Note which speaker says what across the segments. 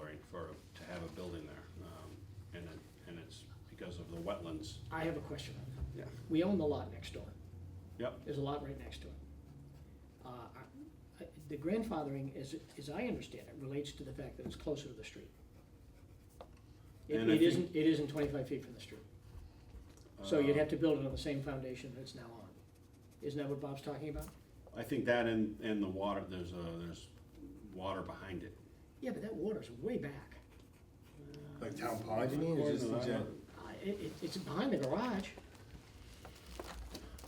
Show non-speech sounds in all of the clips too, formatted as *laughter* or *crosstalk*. Speaker 1: um, the wetlands.
Speaker 2: I have a question.
Speaker 1: Yeah.
Speaker 2: We own the lot next door.
Speaker 1: Yep,
Speaker 2: There's a lot right next to it. Uh, I- I- The grandfathering, as, as I understand it, relates to the fact that it's closer to the street. It
Speaker 1: And I
Speaker 2: it
Speaker 1: think-
Speaker 2: isn't, it isn't twenty-five feet from the street. So you'd have to build it on the same foundation that it's now on. Isn't that what Bob's talking about?
Speaker 1: Um, I think that and, and the water, there's a, there's water behind it.
Speaker 2: Yeah, but that water's way back.
Speaker 3: Like town pond, you mean? Or just in general?
Speaker 2: Uh, It, it- it's behind the garage.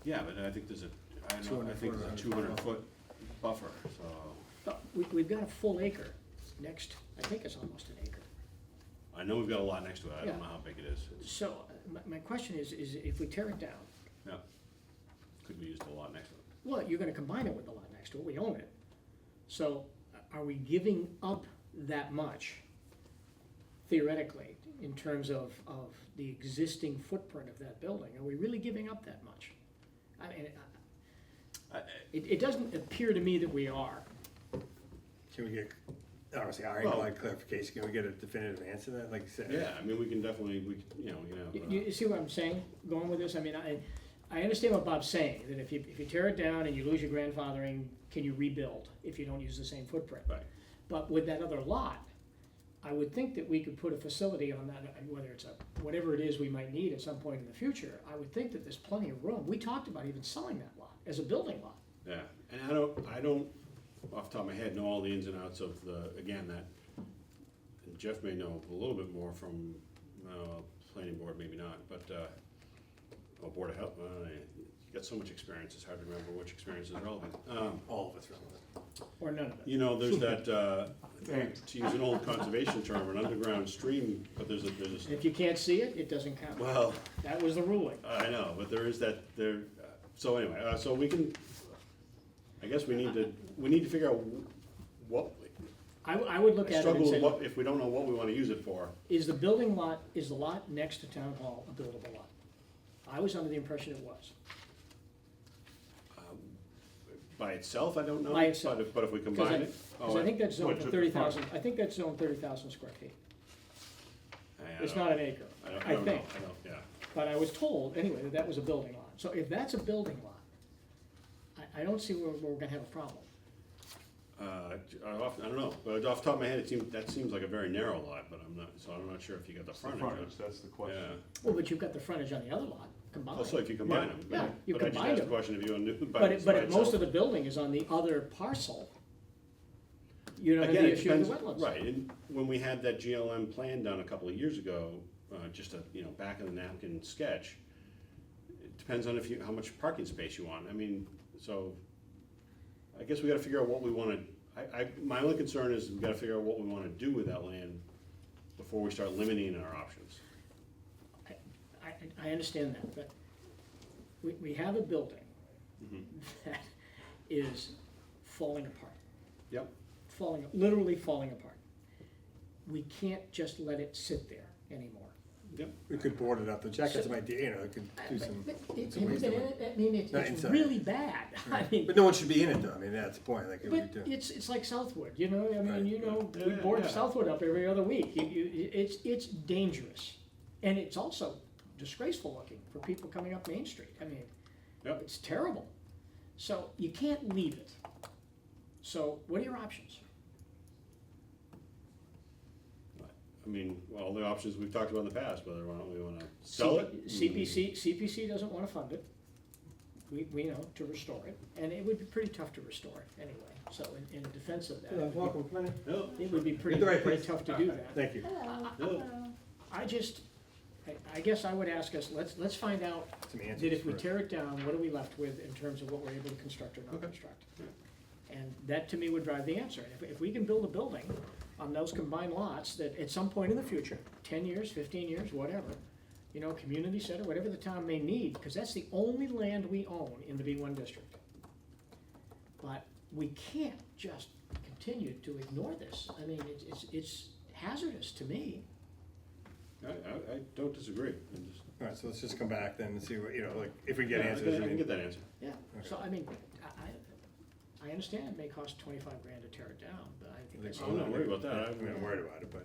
Speaker 1: Yeah, but I think there's a, I know, I
Speaker 3: 200
Speaker 1: think
Speaker 3: foot
Speaker 1: there's a
Speaker 3: around.
Speaker 1: two hundred foot buffer, so.
Speaker 2: But we, we've got a full acre next, I think it's almost an acre.
Speaker 1: I know we've got a lot next to it, I
Speaker 2: Yeah.
Speaker 1: don't know how big it is, It's-
Speaker 2: So uh, my, my question is, is if we tear it down,
Speaker 1: yeah. Could be used a lot next to it.
Speaker 2: Well, you're gonna combine it with the lot next to it, we own it. So uh, are we giving up that much theoretically in terms of, of the existing footprint of that building? Are we really giving up that much? I mean, I-
Speaker 1: I- I-
Speaker 2: it, it doesn't appear to me that we are.
Speaker 3: Can we get, obviously, I
Speaker 1: Well-
Speaker 3: like clarification, can we get a definitive answer to that, like you said?
Speaker 1: Yeah, I mean, we can definitely, we, can- you know, we can
Speaker 2: You,
Speaker 1: have. uh,
Speaker 2: you see what I'm saying, going with this? I mean, I, I understand what Bob's saying, that if you, if you tear it down and you lose your grandfathering, can you rebuild if you don't use the same footprint?
Speaker 1: Right.
Speaker 2: But with that other lot, I would think that we could put a facility on that, uh, whether it's a, whatever it is we might need at some point in the future. I would think that there's plenty of room. We talked about even selling that lot as a building lot.
Speaker 1: Yeah, and I don't, I don't, off the top of my head, know all the ins and outs of the, again, that, and Jeff may know a little bit more from, uh, planning board, maybe not, but, uh, or board of health, uh, you got so much experience, it's hard to remember which experience is relevant. Um,
Speaker 3: All of it's relevant.
Speaker 2: Or none of it.
Speaker 1: you know, there's that, uh, to use an old conservation term, an underground stream, but there's a, there's
Speaker 2: And
Speaker 1: a,
Speaker 2: if you can't see it, it doesn't count.
Speaker 1: well,
Speaker 2: That was the ruling.
Speaker 1: I know, but there is that, there, uh, so anyway, uh, so we can, I guess we need to, we need to figure out wh- what,
Speaker 2: I, w- I would look
Speaker 1: I
Speaker 2: at it and
Speaker 1: struggle
Speaker 2: say,
Speaker 1: with
Speaker 2: look,
Speaker 1: what, if we don't know what we wanna use it for.
Speaker 2: is the building lot, is the lot next to town hall a buildable lot? I was under the impression it was.
Speaker 1: By itself, I don't know,
Speaker 2: By
Speaker 1: but
Speaker 2: itself.
Speaker 1: if, but if we
Speaker 2: Because I-
Speaker 1: combine it.
Speaker 2: Because I think that's
Speaker 1: oh,
Speaker 2: zoned
Speaker 1: to
Speaker 2: for
Speaker 1: the
Speaker 2: thirty
Speaker 1: front.
Speaker 2: thousand, I think that's zoned thirty thousand square feet.
Speaker 1: I- I
Speaker 2: It's
Speaker 1: don't-
Speaker 2: not an acre,
Speaker 1: I don't, I
Speaker 2: I
Speaker 1: don't know,
Speaker 2: think.
Speaker 1: I don't, yeah.
Speaker 2: But I was told, anyway, that that was a building lot. So if that's a building lot, I, I don't see where, where we're gonna have a problem.
Speaker 1: Uh, I off- I don't know, but off the top of my head, it seems, that seems like a very narrow lot, but I'm not, so I'm not sure if you got the
Speaker 4: It's the
Speaker 1: frontage.
Speaker 4: frontage, that's the
Speaker 1: Yeah,
Speaker 4: question.
Speaker 2: Well, but you've got the frontage on the other lot combined.
Speaker 1: also if you
Speaker 4: Yeah.
Speaker 1: combine them,
Speaker 2: Yeah,
Speaker 1: but,
Speaker 2: you
Speaker 1: but I just
Speaker 2: combine
Speaker 1: asked the
Speaker 2: them.
Speaker 1: question if you knew, by, by
Speaker 2: But if,
Speaker 1: itself.
Speaker 2: but if most of the building is on the other parcel, you don't have
Speaker 1: Again,
Speaker 2: the
Speaker 1: it
Speaker 2: issue of
Speaker 1: depends,
Speaker 2: the wetlands.
Speaker 1: right, and when we had that GLM plan done a couple of years ago, uh, just a, you know, back of the napkin sketch, it depends on if you, how much parking space you want, I mean, so, I guess we gotta figure out what we wanna, I, I, my only concern is we gotta figure out what we wanna do with that land before we start limiting our options.
Speaker 2: I, I- I understand that, but we, we have a building
Speaker 3: Mm-hmm.
Speaker 2: that is falling apart.
Speaker 1: Yep,
Speaker 2: falling, literally falling apart. We can't just let it sit there anymore.
Speaker 1: yep,
Speaker 3: We could board it up, the Jack has some idea, you know, it could do some,
Speaker 2: But it-
Speaker 3: some ways
Speaker 2: it-
Speaker 3: to
Speaker 2: it- I mean, it's,
Speaker 3: Not
Speaker 2: it's
Speaker 3: inside.
Speaker 2: really bad, *laughs* I mean,
Speaker 3: But no one should be in it though, I mean, that's the point, like, if we
Speaker 2: but
Speaker 3: do.
Speaker 2: it's, it's like Southwood, you know, I
Speaker 3: Right.
Speaker 2: mean, you know,
Speaker 1: Yeah,
Speaker 2: we
Speaker 1: yeah,
Speaker 2: board
Speaker 1: yeah.
Speaker 2: Southwood up every other week. You- you- it's, it's dangerous. And it's also disgraceful looking for people coming up Main Street, I mean,
Speaker 1: yep,
Speaker 2: it's terrible. So you can't leave it. So what are your options?
Speaker 1: I mean, all the options we've talked about in the past, whether or not we wanna sell it. Mm.
Speaker 2: CPC, CPC doesn't wanna fund it, we, we know, to restore it, and it would be pretty tough to restore it anyway, so in, in defense of that, it would-
Speaker 1: No,
Speaker 2: it would be pretty,
Speaker 3: You're the right
Speaker 2: pretty
Speaker 3: place.
Speaker 2: tough to do that.
Speaker 3: Thank you.
Speaker 1: no,
Speaker 2: I just, I, I guess I would ask us, let's, let's find out,
Speaker 3: Some
Speaker 2: that
Speaker 3: answers
Speaker 2: if we
Speaker 3: for it.
Speaker 2: tear it down, what are we left with in terms of what we're able to construct or not construct?
Speaker 1: Yeah.
Speaker 2: And that to me would drive the answer, if, if we can build a building on those combined lots, that at some point in the future, ten years, fifteen years, whatever, you know, community center, whatever the town may need, because that's the only land we own in the B one district. But we can't just continue to ignore this, I mean, it's, it's, it's hazardous to me.
Speaker 1: I, I, I don't disagree, I'm just.
Speaker 3: Alright, so let's just come back then and see what, you know, like, if we get
Speaker 1: Yeah, I
Speaker 3: answers,
Speaker 1: can-
Speaker 3: I
Speaker 1: I can get
Speaker 3: mean,
Speaker 1: that answer.
Speaker 2: Yeah, so I mean, I, I, I understand it may cost twenty-five grand to tear it down, but I think
Speaker 3: Like,
Speaker 2: that's.
Speaker 3: Oh,
Speaker 1: I'm not worried about that.
Speaker 3: I'm not
Speaker 1: I-
Speaker 3: worried about it, but.